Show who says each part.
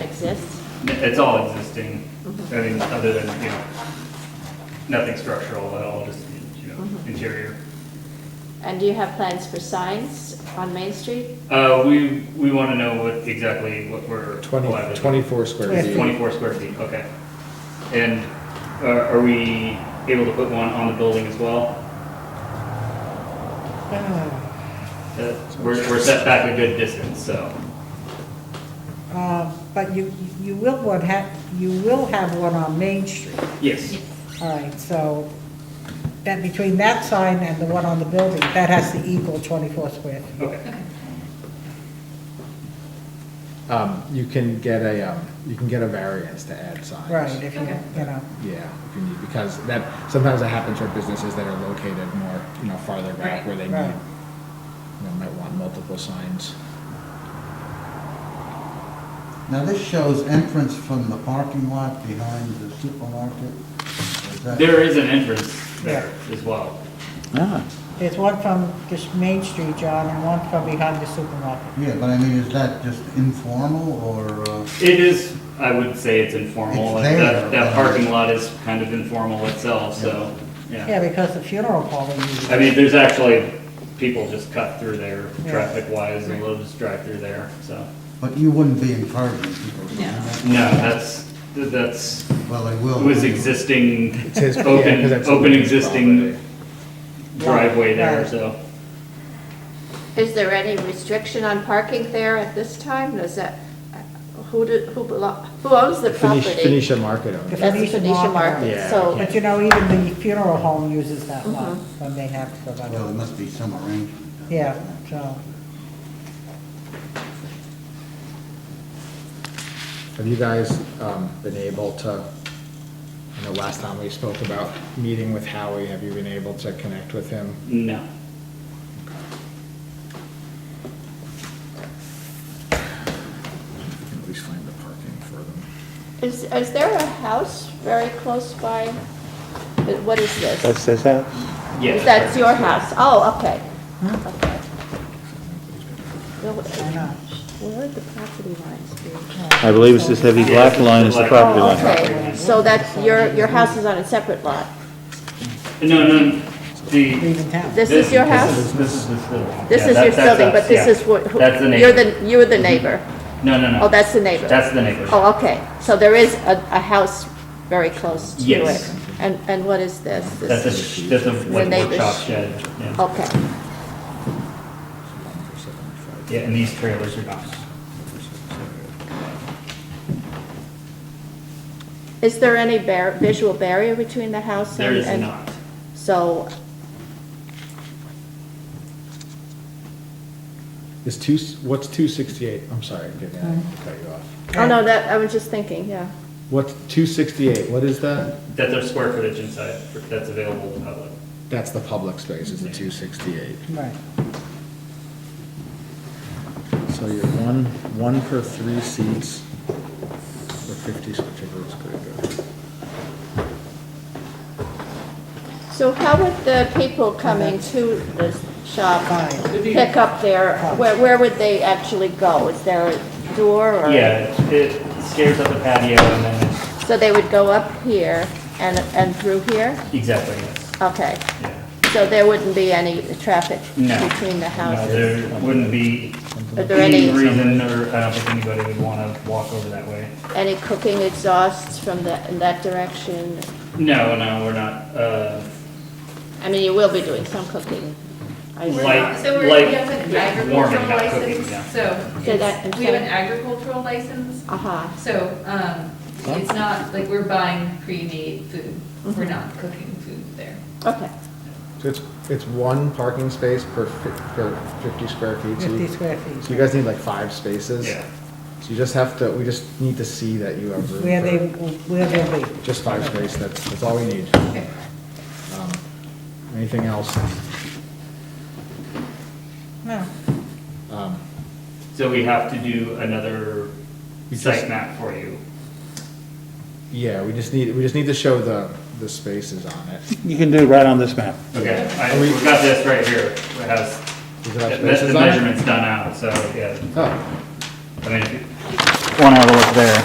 Speaker 1: exists?
Speaker 2: It's all existing, I mean, other than, you know, nothing structural at all, just, you know, interior.
Speaker 1: And do you have plans for signs on Main Street?
Speaker 2: Uh, we, we want to know what, exactly what we're.
Speaker 3: 20,
Speaker 2: allowed to-
Speaker 3: 24 square feet.
Speaker 2: Twenty-four square feet, okay. And are, are we able to put one on the building as well? Uh, We're, we're set back a good distance, so,
Speaker 4: Uh, But you, you will one have, you will have one on Main Street.
Speaker 2: yes,
Speaker 4: All right, so that, between that sign and the one on the building, that has to equal 24 square feet.
Speaker 2: okay.
Speaker 3: Um, you can get a, um, you can get a variance to add signs.
Speaker 4: Right, if you, you know,
Speaker 3: Yeah, if you need, because that, sometimes that happens for businesses that are located more, you know, farther back
Speaker 5: Right.
Speaker 3: where they need,
Speaker 4: Right.
Speaker 3: you know, might want multiple signs.
Speaker 6: Now, this shows entrance from the parking lot behind the supermarket. Is that-
Speaker 2: There is an entrance there as well.
Speaker 4: there's one from just Main Street, John, and one from behind the supermarket.
Speaker 6: Yeah, but I mean, is that just informal or, uh,
Speaker 2: It is, I would say it's informal, and
Speaker 6: It's there.
Speaker 2: that, that parking lot is kind of informal itself, so, yeah.
Speaker 4: Yeah, because the funeral parlor uses
Speaker 2: I
Speaker 4: it.
Speaker 2: mean, there's actually, people just cut through there,
Speaker 4: Yeah.
Speaker 2: traffic-wise, and they'll just drive through there, so.
Speaker 6: but you wouldn't be encouraging people to do
Speaker 5: No.
Speaker 6: that?
Speaker 2: No, that's, that's,
Speaker 6: Well, they will.
Speaker 2: it was existing,
Speaker 3: It's his- yeah, 'cause
Speaker 2: open,
Speaker 3: that's
Speaker 2: open
Speaker 3: his
Speaker 2: existing
Speaker 3: property.
Speaker 2: driveway there,
Speaker 4: Right.
Speaker 2: so.
Speaker 1: Is there any restriction on parking there at this time? Does that, who do, who belo- who owns the
Speaker 3: Finish,
Speaker 1: property?
Speaker 3: Phoenicia Market owns it.
Speaker 1: That's the
Speaker 4: Phoenicia
Speaker 1: Phoenicia
Speaker 4: Market.
Speaker 1: Market,
Speaker 3: Yeah,
Speaker 1: so,
Speaker 4: But you know, even the funeral home uses that lot
Speaker 1: Mhm.
Speaker 4: when they have to. go
Speaker 6: Well, there
Speaker 4: back.
Speaker 6: must be some arrangement.
Speaker 4: Yeah, so,
Speaker 3: Have you guys, um, been able to, I know last time we spoke about meeting with Howie, have you been able to connect with him?
Speaker 2: No.
Speaker 3: At least find the parking for them.
Speaker 1: is, is there a house very close by? What is this?
Speaker 7: his house?
Speaker 2: Yeah,
Speaker 1: That's
Speaker 2: right.
Speaker 1: your house? Oh, okay. Okay.
Speaker 4: why not?
Speaker 1: Where would the property lines be?
Speaker 7: I believe it's this heavy black line is the property
Speaker 1: Oh,
Speaker 7: line.
Speaker 1: okay, so that's, your, your house is on a separate lot.
Speaker 2: No, no, the.
Speaker 4: leaving town.
Speaker 1: This is your
Speaker 2: This
Speaker 1: house?
Speaker 2: is, this is this little.
Speaker 1: This
Speaker 2: yeah,
Speaker 1: is
Speaker 2: that-
Speaker 1: your
Speaker 2: that's
Speaker 1: building,
Speaker 2: us,
Speaker 1: but this
Speaker 2: yeah.
Speaker 1: is what, who-
Speaker 2: That's the
Speaker 1: you're
Speaker 2: neighbor.
Speaker 1: the, you're the neighbor.
Speaker 2: No, no, no.
Speaker 1: Oh, that's the neighbor.
Speaker 2: That's the neighbor.
Speaker 1: Oh, okay, so there is a, a house very close to it.
Speaker 2: Yes.
Speaker 1: And, and what is this?
Speaker 2: That's a,
Speaker 1: This
Speaker 2: sh- that's a
Speaker 1: The
Speaker 2: like
Speaker 1: neighbor's-
Speaker 2: workshop shed, yeah.
Speaker 1: Okay,
Speaker 2: Yeah, and these trailers are not.
Speaker 1: is there any bar, visual barrier between the house and?
Speaker 2: There is
Speaker 1: and-
Speaker 2: not.
Speaker 1: So,
Speaker 3: Is two, what's two sixty-eight? I'm sorry, I didn't mean to cut you off.
Speaker 1: oh no, that, I was just thinking, yeah.
Speaker 3: What's two sixty-eight? What is that?
Speaker 2: That's our square footage inside for- that's available to the public.
Speaker 3: That's the public space, is the two sixty-eight.
Speaker 4: Right.
Speaker 3: So you're one, one per three seats, or fifty, whichever is good.
Speaker 1: So how would the people coming to the shop
Speaker 4: Fine.
Speaker 1: pick up their, where, where would they actually go? Is there a door or?
Speaker 2: Yeah, it it scares up the patio and then,
Speaker 1: So they would go up here and, and through here?
Speaker 2: exactly, yes,
Speaker 1: Okay,
Speaker 2: yeah.
Speaker 1: so there wouldn't be any traffic
Speaker 2: No.
Speaker 1: between the
Speaker 2: No,
Speaker 1: houses?
Speaker 2: there wouldn't be
Speaker 1: Are there
Speaker 2: any
Speaker 1: any,
Speaker 2: reason, or uh, I don't think anybody would want to walk over that way.
Speaker 1: any cooking exhausts from the, in that direction?
Speaker 2: No, no, we're not, uh,
Speaker 1: I mean, you will be doing some cooking. I
Speaker 5: We're
Speaker 2: Like-
Speaker 5: not- So we're,
Speaker 2: like
Speaker 5: we have an
Speaker 2: warming,
Speaker 5: agricultural
Speaker 2: not cooking,
Speaker 5: license,
Speaker 2: yeah.
Speaker 5: so
Speaker 1: Say that
Speaker 5: it's, we have an
Speaker 1: again.
Speaker 5: agricultural license,
Speaker 1: Uh-huh,
Speaker 5: so, um, it's not, like, we're buying pre-made food. We're not cooking food there.
Speaker 1: okay.
Speaker 3: So it's, it's one parking space per fi- per fifty square feet, so
Speaker 4: 50
Speaker 3: you,
Speaker 4: square feet.
Speaker 3: so you guys need like five spaces?
Speaker 2: yeah.
Speaker 3: So you just have to, we just need to see that you have room.
Speaker 4: Where they,
Speaker 3: for
Speaker 4: where they'll be.
Speaker 3: Just five space, that's, that's all we need.
Speaker 5: Okay.
Speaker 3: Um, Anything else?
Speaker 4: No.
Speaker 3: Um,
Speaker 2: So we have to do another
Speaker 3: You
Speaker 2: site
Speaker 3: just-
Speaker 2: map for you.
Speaker 3: Yeah, we just need, we just need to show the, the spaces on it.
Speaker 7: You can do it right on this map.
Speaker 2: Okay, I,
Speaker 3: Are we-
Speaker 2: we've got this right here, it has,
Speaker 3: Does it have
Speaker 2: the
Speaker 3: spaces
Speaker 2: the
Speaker 3: on it?
Speaker 2: measurement's done out, so, yeah,
Speaker 3: Oh,
Speaker 2: I mean, if you-
Speaker 7: Want to have a look there?